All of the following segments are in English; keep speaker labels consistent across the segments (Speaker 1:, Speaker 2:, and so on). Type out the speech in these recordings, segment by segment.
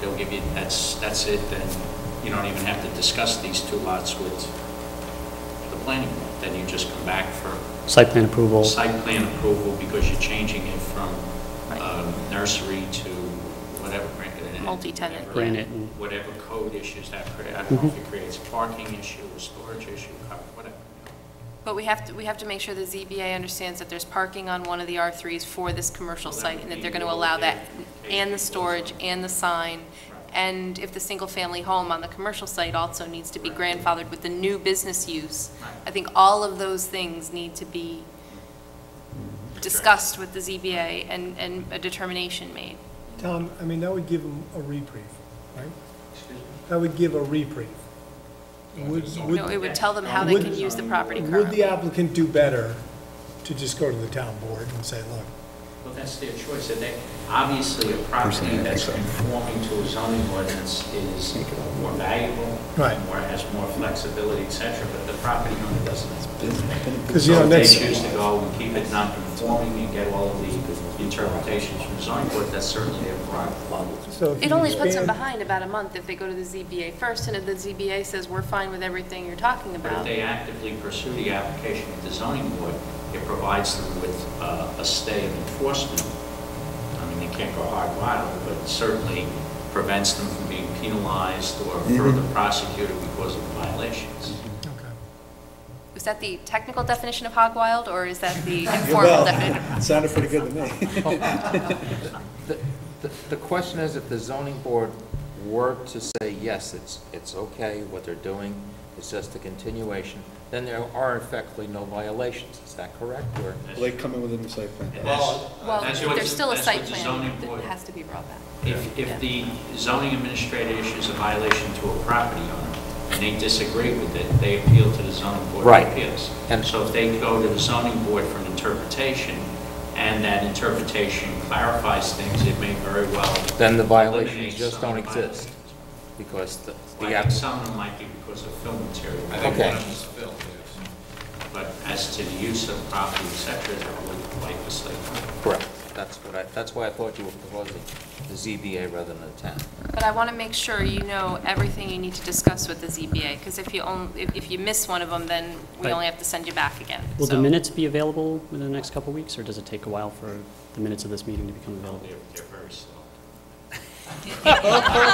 Speaker 1: they'll give you, that's, that's it, then you don't even have to discuss these two lots with the planning board. Then you just come back for
Speaker 2: Site plan approval,
Speaker 1: site plan approval because you're changing it from um, nursery to whatever.
Speaker 3: Multi-tenant,
Speaker 1: whatever-
Speaker 2: Granite and- Mm-hmm.
Speaker 1: Whatever code issues that create, I don't know if it creates a parking issue, a storage issue, uh, whatever.
Speaker 3: But we have to, we have to make sure the ZBA understands that there's parking on one of the R3s for this commercial
Speaker 1: Well, that
Speaker 3: site,
Speaker 1: would
Speaker 3: and that
Speaker 1: be
Speaker 3: they're going to
Speaker 1: all
Speaker 3: allow that,
Speaker 1: they- they
Speaker 3: and the
Speaker 1: do.
Speaker 3: storage, and the sign, and if the single-family home on the commercial site also needs to be grandfathered with the new business use.
Speaker 1: Right.
Speaker 3: I think all of those things need to be discussed with the ZBA and, and a determination made.
Speaker 4: Tom, I mean, that would give them a reprieve, right?
Speaker 1: Excuse me?
Speaker 4: That would give a reprieve. Would- would-
Speaker 3: No, it would tell them how they can use the property
Speaker 4: Would the
Speaker 3: currently.
Speaker 4: applicant do better to just go to the town board and say, look,
Speaker 1: Well, that's their choice, and they, obviously, a property that's conforming to a zoning ordinance is more valuable,
Speaker 4: Right.
Speaker 1: more, has more flexibility, et cetera, but the property owner doesn't.
Speaker 4: Because, you know,
Speaker 1: So if
Speaker 4: next-
Speaker 1: they choose to go and keep it non-conforming and get all of the interpretations from zoning board, that's certainly their prerogative.
Speaker 4: so if you
Speaker 3: It only puts them
Speaker 4: expand-
Speaker 3: behind about a month if they go to the ZBA first, and if the ZBA says, we're fine with everything you're talking
Speaker 1: But if
Speaker 3: about.
Speaker 1: they actively pursue the application with the zoning board, it provides them with uh, a stay of enforcement. I mean, they can't go hard wild, but certainly prevents them from being penalized or
Speaker 5: Mm-hmm.
Speaker 1: further prosecuted because of violations.
Speaker 4: Okay.
Speaker 3: Is that the technical definition of hog wild, or is that the informal definition?
Speaker 5: Sounded pretty good to me.
Speaker 6: The- The the question is, if the zoning board were to say, yes, it's, it's okay, what they're doing is just a continuation, then there are effectively no violations, is that correct? Or,
Speaker 5: Will they come in within the site plan?
Speaker 1: And that's-
Speaker 5: Well,
Speaker 3: Well,
Speaker 1: that's what-
Speaker 3: there's still a
Speaker 1: that's what
Speaker 3: site
Speaker 1: the
Speaker 3: plan
Speaker 1: zoning
Speaker 3: that
Speaker 1: board-
Speaker 3: has to be brought back.
Speaker 1: If, if the zoning administrator issues a violation to a property owner, and they disagree with it, they appeal to the zoning board
Speaker 6: Right.
Speaker 1: of appeals.
Speaker 6: And-
Speaker 1: So if they go to the zoning board for an interpretation, and that interpretation clarifies things, it may very well.
Speaker 6: Then the violations
Speaker 1: eliminate
Speaker 6: just
Speaker 1: some
Speaker 6: don't
Speaker 1: of the
Speaker 6: exist. because the,
Speaker 1: violations.
Speaker 6: the
Speaker 1: I think
Speaker 6: app-
Speaker 1: some of them might be because of film
Speaker 7: I
Speaker 1: material,
Speaker 7: think one
Speaker 6: Okay.
Speaker 7: of them's filled, yes.
Speaker 1: but as to the use of property, et cetera, that would like to say.
Speaker 6: correct, that's what I, that's why I thought you were proposing the ZBA rather than the town.
Speaker 3: But I want to make sure you know everything you need to discuss with the ZBA, because if you only, if, if you miss one of them, then we
Speaker 2: Right.
Speaker 3: only have to send you back again.
Speaker 2: will the
Speaker 3: So-
Speaker 2: minutes be available within the next couple of weeks, or does it take a while for the minutes of this meeting to become available?
Speaker 1: They're, they're very slow.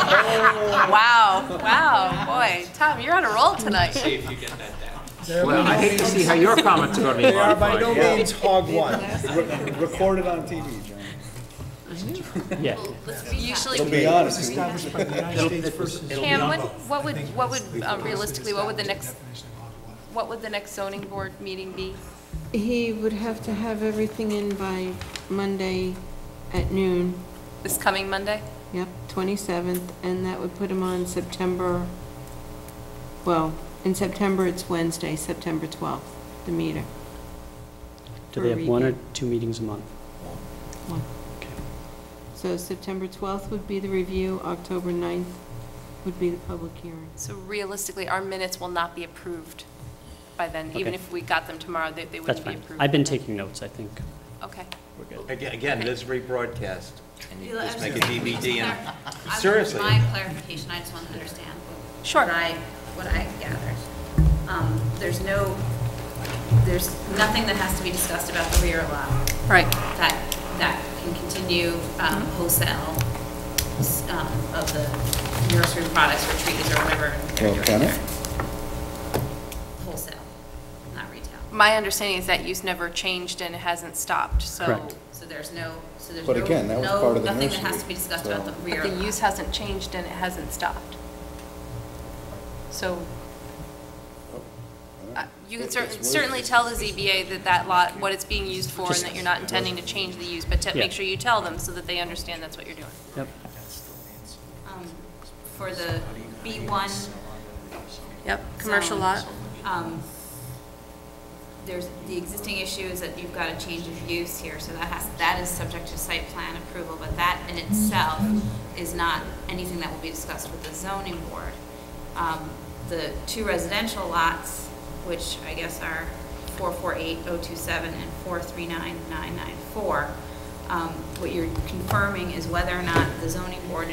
Speaker 3: Wow, wow, boy, Tom, you're on a roll tonight.
Speaker 1: See if you get that down.
Speaker 4: They're
Speaker 6: Well, I hate to see how your comments are going to be
Speaker 4: They are by no
Speaker 6: modified.
Speaker 4: means hog wild.
Speaker 5: re- Recorded on TV, John.
Speaker 2: Yeah,
Speaker 3: We Usually,
Speaker 5: To be honest,
Speaker 4: Established by the United States versus.
Speaker 3: Cam, what, what would, what would, uh, realistically, what would the next, what would the next zoning board meeting be?
Speaker 8: He would have to have everything in by Monday at noon,
Speaker 3: This coming Monday?
Speaker 8: yep, 27th, and that would put him on September, well, in September, it's Wednesday, September 12th, the meter.
Speaker 2: do they have one or
Speaker 8: Review.
Speaker 2: two meetings a month?
Speaker 8: One. So September 12th would be the review, October 9th would be the public hearing.
Speaker 3: So realistically, our minutes will not be approved by then,
Speaker 2: Okay.
Speaker 3: even if we got them tomorrow, they, they
Speaker 2: That's
Speaker 3: wouldn't be
Speaker 2: fine.
Speaker 3: approved.
Speaker 2: I've been taking notes, I think.
Speaker 3: Okay.
Speaker 2: We're good.
Speaker 6: Again, again, this rebroadcast, and you just make a DVD and,
Speaker 9: I would-
Speaker 6: seriously.
Speaker 9: My clarification, I just want to understand.
Speaker 3: Sure.
Speaker 9: What I, what I gathered. Um, There's no, there's nothing that has to be discussed about the rear lot.
Speaker 3: Right. Mm-hmm.
Speaker 9: That, that can continue um, wholesale s- um, of the nursery products or trees or whatever they're
Speaker 5: Well,
Speaker 9: doing
Speaker 5: can it?
Speaker 9: there. Wholesale, not retail.
Speaker 3: My understanding is that use never changed and it hasn't stopped, so.
Speaker 2: Correct.
Speaker 9: So there's no, so there's no.
Speaker 5: But again, that was
Speaker 9: no-
Speaker 5: part of the
Speaker 9: Nothing that has
Speaker 5: nursery,
Speaker 9: to be discussed about the
Speaker 5: so-
Speaker 9: rear.
Speaker 3: But the use hasn't changed and it hasn't stopped. So Uh, You can cer- certainly tell the ZBA that that lot, what it's being used for, and that you're not intending to change the use, but to
Speaker 2: Yeah.
Speaker 3: make sure you tell them so that they understand that's what you're doing.
Speaker 2: Yep,
Speaker 9: um, for the B1
Speaker 3: Yep,
Speaker 9: commercial lot. um, there's, the existing issue is that you've got a change of use here, so that has, that is subject to site plan approval, but that in itself is not anything that will be discussed with the zoning board. Um, The two residential lots, which I guess are 448027 and 439994, um, what you're confirming is whether or not the zoning board